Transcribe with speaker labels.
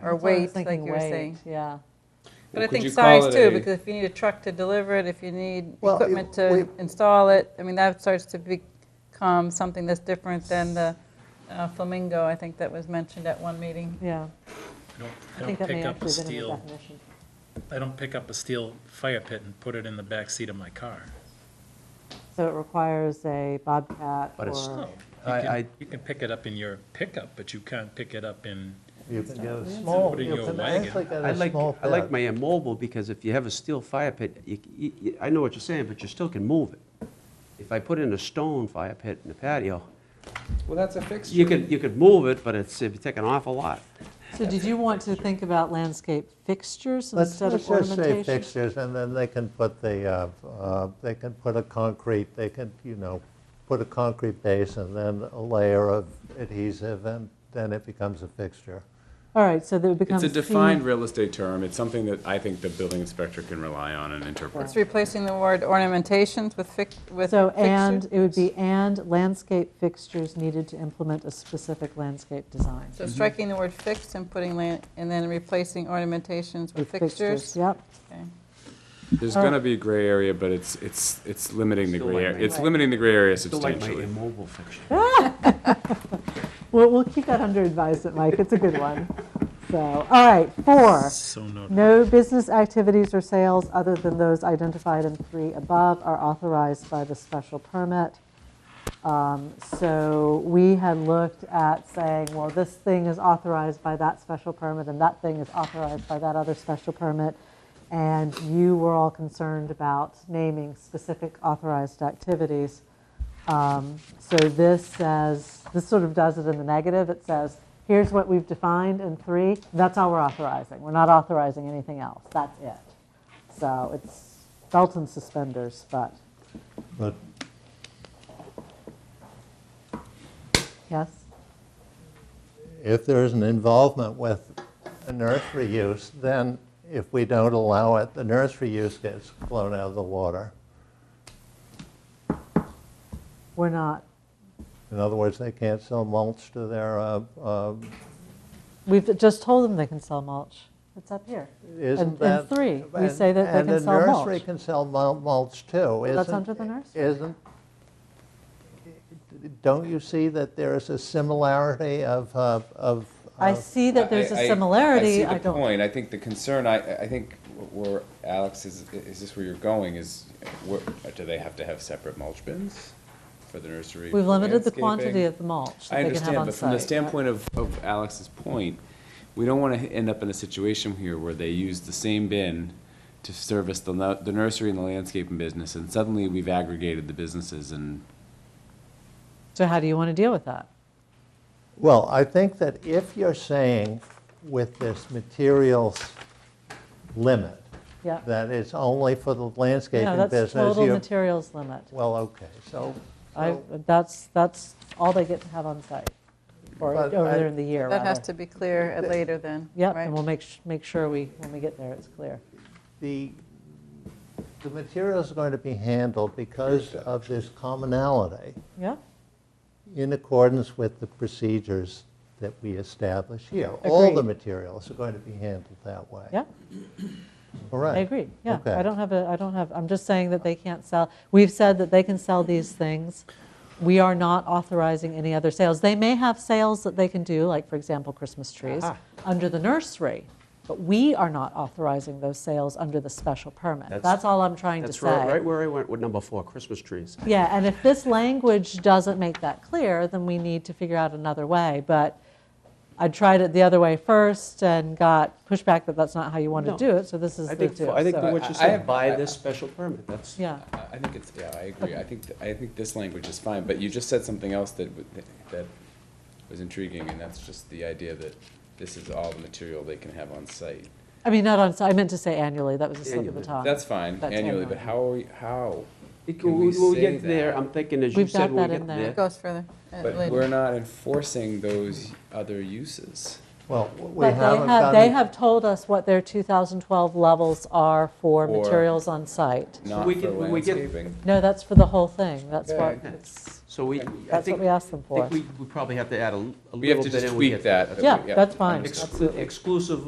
Speaker 1: or
Speaker 2: That's what I was
Speaker 1: weight, like
Speaker 2: thinking,
Speaker 1: you were
Speaker 2: weight,
Speaker 1: saying.
Speaker 2: Yeah.
Speaker 1: But I
Speaker 3: Well, could
Speaker 1: think
Speaker 3: you call
Speaker 1: size
Speaker 3: it
Speaker 1: too,
Speaker 3: a-
Speaker 1: because if you need a truck to deliver it, if you need
Speaker 4: Well, it-
Speaker 1: equipment
Speaker 4: we-
Speaker 1: to install it, I mean, that starts to become something that's different than the uh, flamingo, I think that was mentioned at one meeting.
Speaker 2: Yeah.
Speaker 5: Don't,
Speaker 2: I
Speaker 5: don't
Speaker 2: think that may
Speaker 5: pick up a
Speaker 2: actually have been in the
Speaker 5: steel,
Speaker 2: definition.
Speaker 5: I don't pick up a steel fire pit and put it in the back seat of my car.
Speaker 2: So it requires a bobcat
Speaker 6: But it's-
Speaker 2: or,
Speaker 5: No, you
Speaker 6: I- I-
Speaker 5: can, you can pick it up in your pickup, but you can't pick it up in,
Speaker 4: You
Speaker 6: Yeah, it's-
Speaker 4: small,
Speaker 5: put in
Speaker 4: you
Speaker 5: your
Speaker 4: can
Speaker 5: wagon.
Speaker 4: act like that
Speaker 6: I
Speaker 4: a
Speaker 6: like,
Speaker 4: small
Speaker 6: I like
Speaker 4: pad.
Speaker 6: my immobile, because if you have a steel fire pit, you, you- you- I know what you're saying, but you still can move it. If I put in a stone fire pit in the patio,
Speaker 3: Well, that's a fixture.
Speaker 6: you could, you could move it, but it's, it'd take an awful lot.
Speaker 2: so did you want to think about landscape fixtures
Speaker 4: Let's,
Speaker 2: instead
Speaker 4: let's
Speaker 2: of
Speaker 4: just say
Speaker 2: ornamentation?
Speaker 4: fixtures, and then they can put the, uh, uh, they can put a concrete, they can, you know, put a concrete base and then a layer of adhesive, and then it becomes a fixture.
Speaker 2: All right, so that it becomes.
Speaker 3: It's a
Speaker 2: C-
Speaker 3: defined real estate term. It's something that I think the building inspector can rely on and interpret.
Speaker 1: It's replacing the word ornamentations with fic, with
Speaker 2: So
Speaker 1: fixture.
Speaker 2: and, it would be and landscape fixtures needed to implement a specific landscape design.
Speaker 1: So striking the word fixed and putting, lan- and then replacing ornamentations with fixtures.
Speaker 2: Yep.
Speaker 1: Okay.
Speaker 3: There's gonna be gray area, but it's, it's, it's limiting the
Speaker 6: Still
Speaker 3: gray
Speaker 6: like
Speaker 3: area.
Speaker 6: my-
Speaker 3: It's limiting the gray area
Speaker 6: Still like my
Speaker 3: substantially.
Speaker 6: immobile fixture.
Speaker 2: We'll, we'll keep that under advisement, Mike. It's a good one. So, all right, four.
Speaker 5: so no.
Speaker 2: No business activities or sales other than those identified in three above are authorized by the special permit. Um, So we had looked at saying, well, this thing is authorized by that special permit and that thing is authorized by that other special permit. And you were all concerned about naming specific authorized activities. Um, So this says, this sort of does it in the negative. It says, here's what we've defined in three. That's all we're authorizing. We're not authorizing anything else. That's it. So it's belt and suspenders, but,
Speaker 4: But
Speaker 2: yes?
Speaker 4: if there is an involvement with a nursery use, then if we don't allow it, the nursery use gets blown out of the water.
Speaker 2: We're not,
Speaker 4: In other words, they can't sell mulch to their, uh, uh,
Speaker 2: we've just told them they can sell mulch. It's up here. And- and
Speaker 4: isn't that?
Speaker 2: three, we
Speaker 4: and-
Speaker 2: say that they can sell
Speaker 4: And the
Speaker 2: mulch.
Speaker 4: nursery can sell mul- mulch too, isn't?
Speaker 2: that's under the nursery.
Speaker 4: Isn't, don't you see that there is a similarity of, uh, of?
Speaker 2: I
Speaker 4: of-
Speaker 2: see that there's
Speaker 7: Oh, I- I-
Speaker 2: a similarity.
Speaker 7: I see the
Speaker 2: don't.
Speaker 7: point. I think the concern, I, I think where Alex is, is this where you're going, is where, do they have to have separate mulch bins for the nursery?
Speaker 2: We've
Speaker 7: for
Speaker 2: limited the quantity
Speaker 7: landscaping?
Speaker 2: of the mulch
Speaker 7: I
Speaker 2: that they can have
Speaker 7: understand,
Speaker 2: on
Speaker 7: but from the
Speaker 2: site.
Speaker 7: standpoint of, of Alex's point, we don't want to end up in a situation here where they use the same bin to service the, nu- the nursery and the landscaping business, and suddenly we've aggregated the businesses and
Speaker 2: So how do you want to deal with that?
Speaker 4: Well, I think that if you're saying with this materials limit,
Speaker 2: Yeah.
Speaker 4: that it's only for the landscaping
Speaker 2: No, that's
Speaker 4: business.
Speaker 2: total
Speaker 4: you-
Speaker 2: materials limit.
Speaker 4: Well, okay, so,
Speaker 2: I, that's, that's all they get to have on site, or
Speaker 4: But
Speaker 2: over
Speaker 4: I-
Speaker 2: there in the year,
Speaker 1: That has
Speaker 2: rather.
Speaker 1: to be clear at later then,
Speaker 2: Yep,
Speaker 1: right?
Speaker 2: and we'll make, sh- make sure we, when we get there, it's clear.
Speaker 4: the, the materials are going to be handled because of this commonality
Speaker 2: Yeah,
Speaker 4: in accordance with the procedures that we establish here. All the
Speaker 2: Agreed.
Speaker 4: materials are going to be handled that way.
Speaker 2: yeah,
Speaker 4: All
Speaker 2: I
Speaker 4: right.
Speaker 2: agree, yeah.
Speaker 4: Okay.
Speaker 2: I don't have a, I don't have, I'm just saying that they can't sell, we've said that they can sell these things. We are not authorizing any other sales. They may have sales that they can do, like, for example, Christmas trees, under the nursery, but we are not authorizing those sales under the special permit.
Speaker 6: That's-
Speaker 2: That's all I'm trying to
Speaker 6: That's
Speaker 2: say.
Speaker 6: right, right where I went with number four, Christmas trees.
Speaker 2: Yeah, and if this language doesn't make that clear, then we need to figure out another way. But I tried it the other way first and got pushback that that's not how you want to
Speaker 6: No.
Speaker 2: do it, so this is
Speaker 6: I
Speaker 2: the
Speaker 6: think,
Speaker 2: do.
Speaker 6: I think
Speaker 2: so-
Speaker 6: what
Speaker 7: I-
Speaker 6: you
Speaker 7: I
Speaker 6: said,
Speaker 7: have-
Speaker 6: by
Speaker 7: I-
Speaker 6: this special permit, that's.
Speaker 2: Yeah,
Speaker 7: I I think it's, yeah, I agree. I think, th- I think this language is fine, but you just said something else that, w- that- that was intriguing, and that's just the idea that this is all the material they can have on site.
Speaker 2: I mean, not on, I meant to say annually, that was a slip of the
Speaker 6: Annually.
Speaker 2: tongue.
Speaker 7: That's fine
Speaker 2: That's
Speaker 7: annually, but
Speaker 2: annually.
Speaker 7: how are we, how?
Speaker 6: It-
Speaker 7: Can we
Speaker 6: When we
Speaker 7: say
Speaker 6: get there,
Speaker 7: that?
Speaker 6: I'm thinking, as you
Speaker 2: We've
Speaker 6: said,
Speaker 2: got
Speaker 6: when
Speaker 2: that
Speaker 6: we
Speaker 2: in
Speaker 6: get
Speaker 2: there.
Speaker 6: there.
Speaker 1: It goes further at
Speaker 7: But
Speaker 1: later.
Speaker 7: we're not enforcing those other uses.
Speaker 4: Well, we
Speaker 2: But they
Speaker 4: haven't
Speaker 2: have, they
Speaker 4: gotten,
Speaker 2: have told us what their 2012 levels are for
Speaker 7: For-
Speaker 2: materials on site.
Speaker 7: not
Speaker 6: we
Speaker 7: for
Speaker 6: can- we can-
Speaker 7: landscaping.
Speaker 2: No, that's for the whole thing. That's what,
Speaker 7: Okay.
Speaker 2: it's-
Speaker 6: So we, I
Speaker 2: that's what
Speaker 6: think,
Speaker 2: we
Speaker 6: I
Speaker 2: asked them for.
Speaker 6: think we we probably have to add a l- a little bit.
Speaker 7: We have to just
Speaker 6: and we
Speaker 7: tweak
Speaker 6: get-
Speaker 7: that.
Speaker 2: Yeah, that's fine.
Speaker 6: Exclu-
Speaker 2: Absolutely.
Speaker 6: Exclusive